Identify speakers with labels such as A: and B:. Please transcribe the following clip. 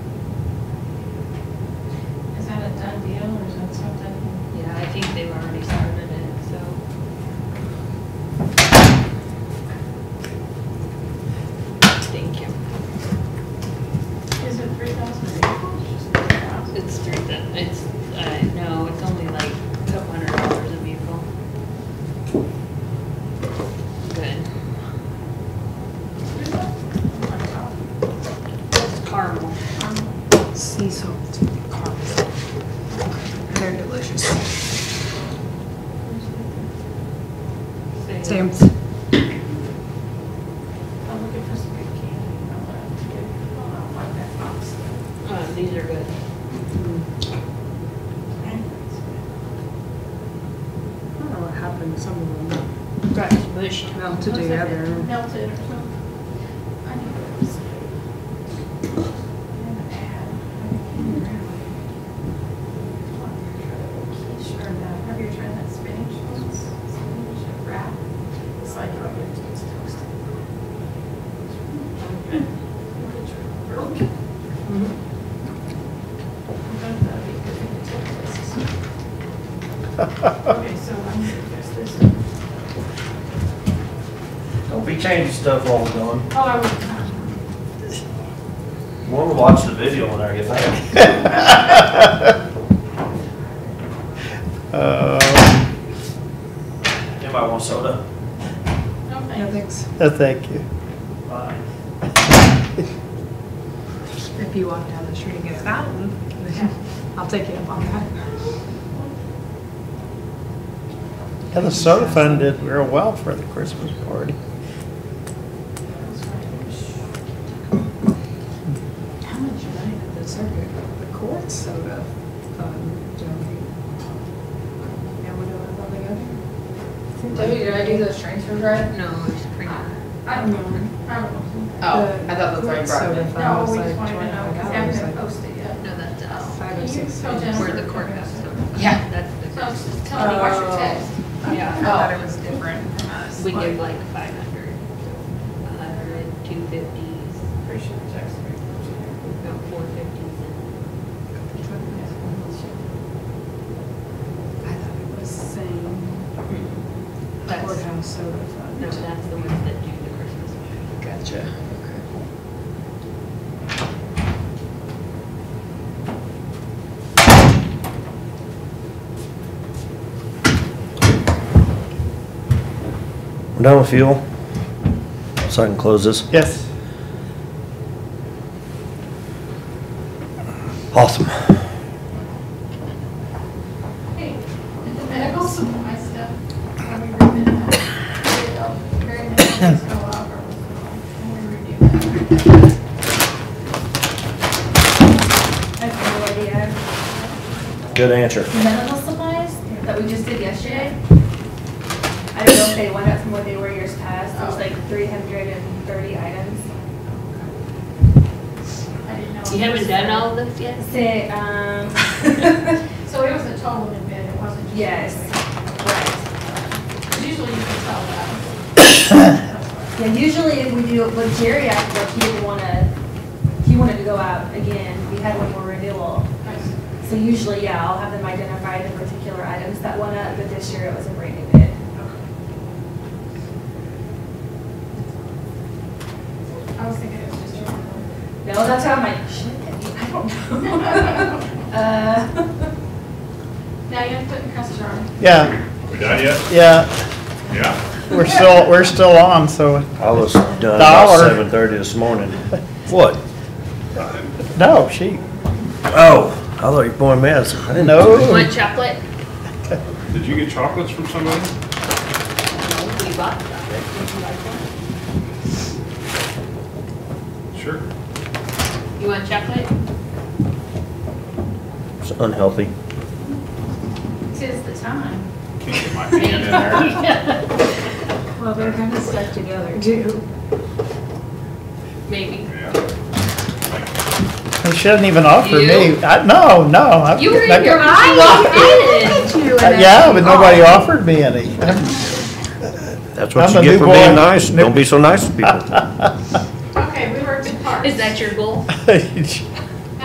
A: on something? Yeah, I think they've already started it, so. Thank you.
B: Is it three thousand vehicles? Just three thousand?
A: It's three, thou- it's, uh, no, it's only like a couple hundred dollars a vehicle. Good.
B: Oh my God.
A: It's caramel.
B: Um,
C: Sea salt caramel. They're delicious. Sam's.
B: I'm looking for some good candy. I want to get, I want to that box.
A: Uh, these are good.
B: Anyway,
C: I don't know what happened to some of them.
A: Got bushed.
C: Melted together.
B: Melted or something. I need those. And an ad. I can't remember. Quiche or the, have you tried that spinach ones? Spinach wrap? It's like, oh, it's toasted. It's really good. Real good. Okay, so I'm gonna guess this. Oh,
D: Don't be changing stuff while we're going.
B: Oh, I was,
D: We'll watch the video when I get back.
E: Uh,
D: Anybody want soda?
B: no
C: No,
B: thanks.
C: thanks.
E: no, thank you.
D: Fine.
C: If you walk down the street and get a fountain, then I'll take you up on that.
E: And the soda fund did real well for the Christmas party.
C: How much money did the circuit, the court soda Um, fund donate? Now we know what they got.
F: Debbie, did I do those transfers right?
A: No, it's pretty good.
B: I don't know, I don't know.
F: Oh, I thought that's why you brought
C: The
F: it.
C: court soda fund
B: No,
C: was
B: we just
C: like
B: wanted to know, because I
C: $25.
B: haven't posted yet.
A: No, that's us.
C: Five or
B: You
C: six.
B: tell
C: cents.
B: Jennifer.
A: Where the courthouse.
F: Yeah. uh,
A: That's
B: So
A: the,
B: just tell me what's
C: Oh.
B: your text.
A: yeah.
C: I
F: Oh.
C: thought it was different from us.
A: We give like five hundred, a hundred, two fifties,
B: Pretty sure the text. right?
A: no, four fifties and
C: I thought it was saying
A: that's,
C: courthouse soda
A: no,
C: fund.
A: that's the ones that do the Christmas party.
C: Gotcha. Okay.
D: We're done with fuel, so I can close this.
E: Yes.
D: Awesome.
B: Hey, did the medical supply stuff, when we reviewed that, did very much go up or was it all, when we reviewed that?
G: I have no idea.
D: Good answer.
G: The Medical supplies that we just did yesterday. I don't know if they went up from what they were years past.
B: Oh.
G: There's like three hundred and thirty items.
B: I didn't know.
G: Oh,
A: You haven't done all this yet?
G: Say, um,
B: So it was a total in bid, it wasn't just.
G: Yes. right.
B: Because usually you can tell that.
G: Yeah, usually if we do, with Jerry after, work, he didn't wanna, he wanted to go out again. We had one more renewal.
B: Nice.
G: So usually, yeah, I'll have them identify the particular items that went up, but this year it was a brand new bid.
B: I was thinking it was just. your-
G: No, that's how I'm like, should I get- I don't know. Uh,
B: Now you have to put in customer.
E: Yeah,
H: We done yet?
E: yeah,
H: Yeah.
E: we're still, we're still on, so,
D: I was done about
E: Dollar.
D: seven thirty this morning. What?
E: no, she,
D: Oh, I thought you were pouring me out. I didn't know.
E: no.
A: Want chocolate?
H: Did you get chocolates from somebody?
A: No, we bought chocolate. Would you like one?
H: Sure.
A: You want chocolate?
D: It's unhealthy.
B: Tis the time.
H: Can't get my hand in there.
C: Well, they're kind of stuck together too.
A: Maybe.
H: Yeah.
E: She shouldn't even offer me.
A: You?
E: I, no, no. I-
A: You were in
E: that-
A: your eye.
E: Uh, Yeah, but nobody offered me any.
D: That's
E: I'm
D: what
E: a
D: you
E: new
D: get for
E: boy.
D: being nice. Don't be so nice to people.
B: Okay, we were a good part.
A: Is that your goal?
E: She